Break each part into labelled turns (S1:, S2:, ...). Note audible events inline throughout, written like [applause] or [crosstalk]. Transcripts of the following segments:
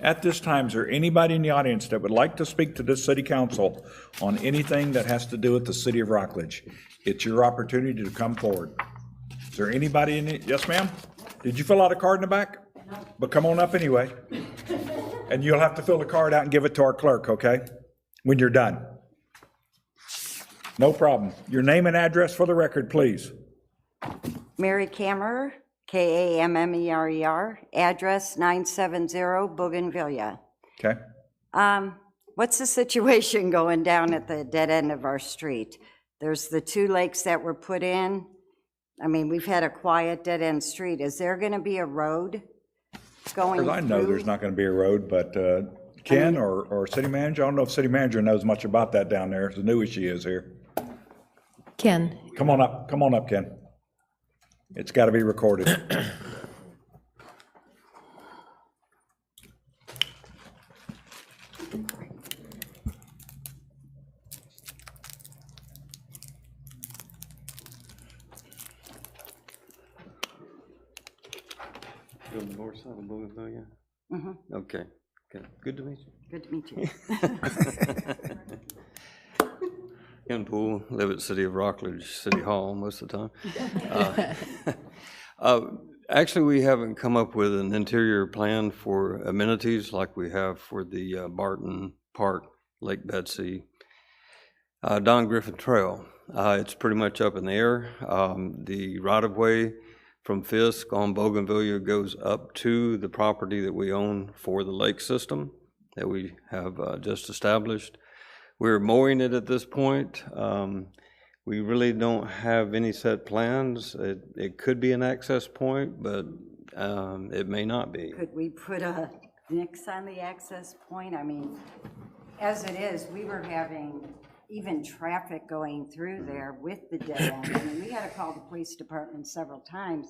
S1: At this time, is there anybody in the audience that would like to speak to this city council on anything that has to do with the city of Rockledge? It's your opportunity to come forward. Is there anybody in it? Yes, ma'am? Did you fill out a card in the back? But come on up anyway. And you'll have to fill the card out and give it to our clerk, okay? When you're done. No problem. Your name and address for the record, please.
S2: Mary Kammerer, E K-A-M-M-E-R-E-R, address 970 Bougainvillea.
S1: Okay?
S2: Um, What's the situation [laughs] going down at the dead end of our street? There's the two lakes that were put in. I mean, we've had a quiet dead-end street. Is there going to be a road going
S1: As
S2: through?
S1: I know, there's not going to be a road, but uh, Ken or, or city manager, I don't know if city manager knows much about that down there, as new as she is here.
S3: Ken,
S1: Come on up, come on up, Ken. It's got to be recorded.
S4: On the north side of Bougainvillea? Mm-hmm. Okay, good, good to meet you.
S2: Good to meet you.
S4: Ken Poole, live at City of Rockledge, City Hall most of the time. [laughs] Uh, uh, Actually, we haven't come up with an interior plan for amenities like we have for the uh, Barton Park, Lake Betsy, uh, Don Griffin Trail. Uh, It's pretty much up in the air. Um, The right-of-way from Fisk on Bougainvillea goes up to the property that we own for the lake system that we have uh, just established. We're mowing it at this point. Um, We really don't have any set plans. It, it could be an access point, but um, it may not be.
S2: Could we put a nix on the access point? I mean, as it is, we were having even traffic going through there with the dead end. I mean, we had to call the police department several times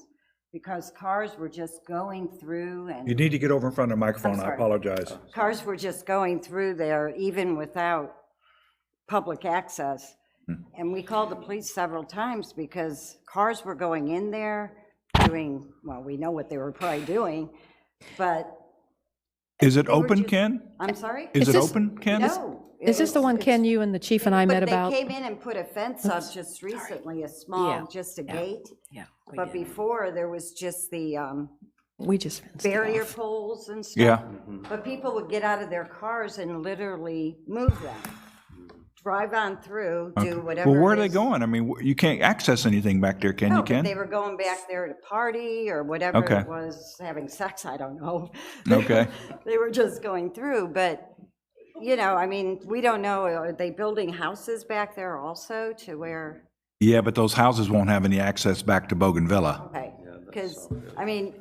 S2: because cars were just going through
S1: [coughs] You
S2: and
S1: need to get over in front of the microphone, I
S2: sorry.
S1: apologize.
S2: cars were just going through there even without public access. And we called the police several times because cars were going in there doing, well, we know what they were probably doing, but,
S1: Is it open,
S2: just-
S1: Ken?
S2: I'm sorry?
S1: Is it
S3: this-
S1: open, Ken?
S2: No.
S3: is this the one Ken you and the chief and I met
S2: But
S3: about?
S2: they came in and put a fence up just recently, a small, just a gate.
S5: Yeah. we
S2: But
S5: did.
S2: before, there was just the um,
S3: We just fenced it
S2: barrier
S3: off.
S2: poles and stuff.
S1: Yeah,
S2: But people would get out of their cars and literally move them,
S3: Hmm.
S2: drive on through, do whatever.
S1: well, where are
S2: it
S1: they
S2: is.
S1: going? I mean, wh- you can't access anything back there, can
S2: No,
S1: you,
S2: Oh, but They
S1: Ken?
S2: were going back there to party or whatever
S1: Okay.
S2: it was, having sex, I don't know.
S1: Okay.
S2: [laughs] They were just going through, but, you know, I mean, we don't know, are they building houses back there also to where?
S1: Yeah, but those houses won't have any access back to Bougainvilla.
S2: Okay, because, I mean,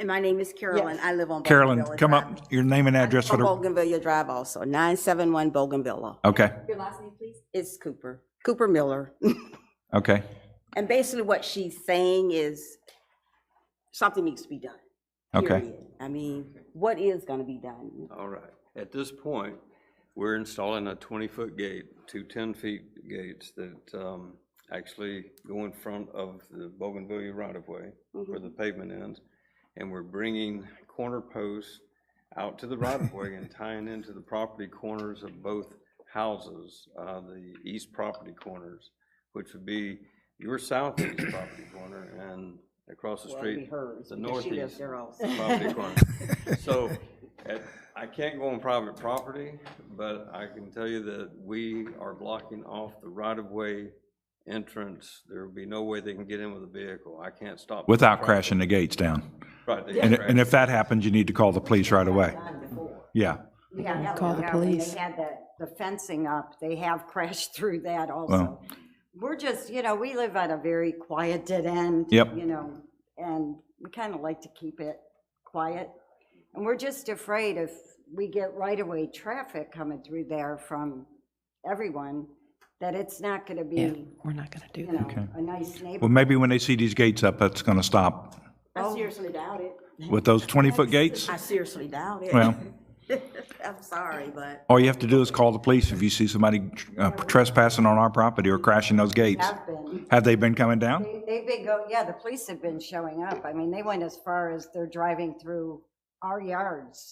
S6: And my name is Carolyn. I live on.
S1: Carolyn,
S6: Bougainville
S1: come
S6: Drive.
S1: up, your name and address for
S6: On
S1: the,
S6: Bougainvillea Drive also, 971 Bougainvillea.
S1: okay,
S6: It's Cooper, Cooper Miller. [laughs]
S1: okay.
S6: And basically what she's saying is something needs to be done.
S1: Okay.
S6: period. I mean, what is going to be done?
S4: All right. At this point, we're installing a 20-foot gate, two 10-feet gates that um, actually go in front of the Bougainvillea right-of-way where the pavement ends. And we're bringing corner posts out to the right-of-way and tying into the property corners of both houses, uh, the east property corners, which would be your southeast property corner and across the
S6: Well, it'd be
S4: street,
S6: hers
S4: the
S6: because she
S4: northeast
S6: lives there also. [laughs]
S4: property corner. So, at- I can't go on private property, but I can tell you that we are blocking off the right-of-way entrance. There will be no way they can get in with a vehicle. I can't stop. them.
S1: Without crashing the gates down.
S4: Right, they
S1: And,
S4: can
S1: and if that happens, you need to call the police right away. Yeah,
S2: yeah.
S3: Call the
S2: yeah, when
S3: police.
S2: They had the, the fencing up, they have [laughs] crashed through that also. We're just, you know, we live on a very quiet dead end.
S1: Yep.
S2: You know, and we kind of like to keep it quiet. And we're just afraid if we get right-of-way traffic coming through there from everyone, that it's not going to
S3: Yeah,
S2: be,
S3: we're not going to do
S2: you
S3: that.
S2: know, a nice
S1: well,
S2: neighborhood.
S1: maybe when they see these gates up, that's going to stop.
S6: I seriously doubt it.
S1: With those 20-foot gates,
S6: I seriously doubt it.
S1: well,
S6: [laughs] I'm sorry, but
S1: all you have to do is call the police if you see somebody uh, trespassing on our property or crashing those gates.
S2: Have been.
S1: Have they been coming down?
S2: They- They've been go, yeah, the police have been showing up. I mean, they went as far as they're driving through our yards